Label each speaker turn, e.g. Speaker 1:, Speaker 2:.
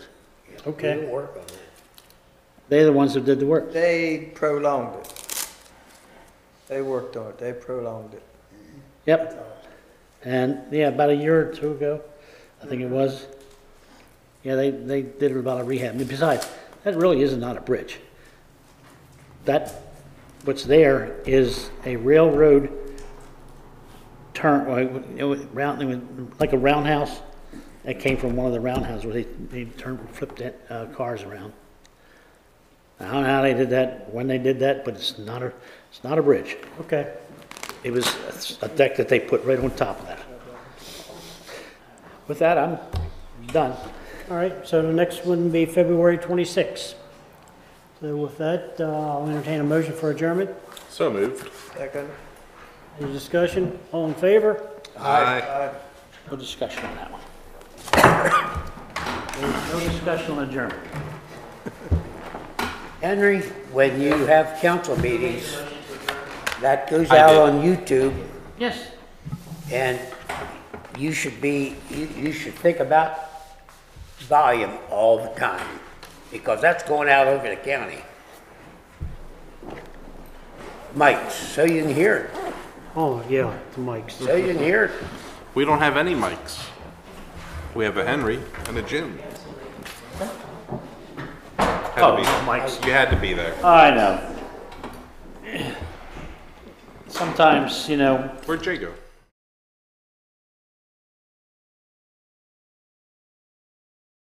Speaker 1: Okay.
Speaker 2: We didn't work on it.
Speaker 1: They're the ones that did the work.
Speaker 3: They prolonged it. They worked on it, they prolonged it.
Speaker 1: Yep. And, yeah, about a year or two ago, I think it was. Yeah, they, they did a lot of rehab. And besides, that really is not a bridge. That, what's there is a railroad turn, well, you know, round, it was like a roundhouse that came from one of the roundhouses where they, they turned, flipped that, uh, cars around. I don't know how they did that, when they did that, but it's not a, it's not a bridge.
Speaker 4: Okay.
Speaker 1: It was a deck that they put right on top of that. With that, I'm done.
Speaker 4: All right, so the next one would be February 26. So with that, uh, I'll entertain a motion for adjournment.
Speaker 5: So moved.
Speaker 3: Second?
Speaker 4: Any discussion? All in favor?
Speaker 5: Aye.
Speaker 3: Aye.
Speaker 1: No discussion on that one. There's No discussion on adjournment.
Speaker 2: Henry, when you have council meetings, that goes out on YouTube,
Speaker 1: Yes.
Speaker 2: and you should be, you, you should think about volume all the time, because that's going out over the county. Mike, so you can hear it,
Speaker 4: Oh, yeah, the mics.
Speaker 2: so you can hear it.
Speaker 5: We don't have any mics. We have a Henry and a Jim. Had to be, mics. You had to be there.
Speaker 1: I know. Sometimes, you know,
Speaker 5: Where'd Jay go?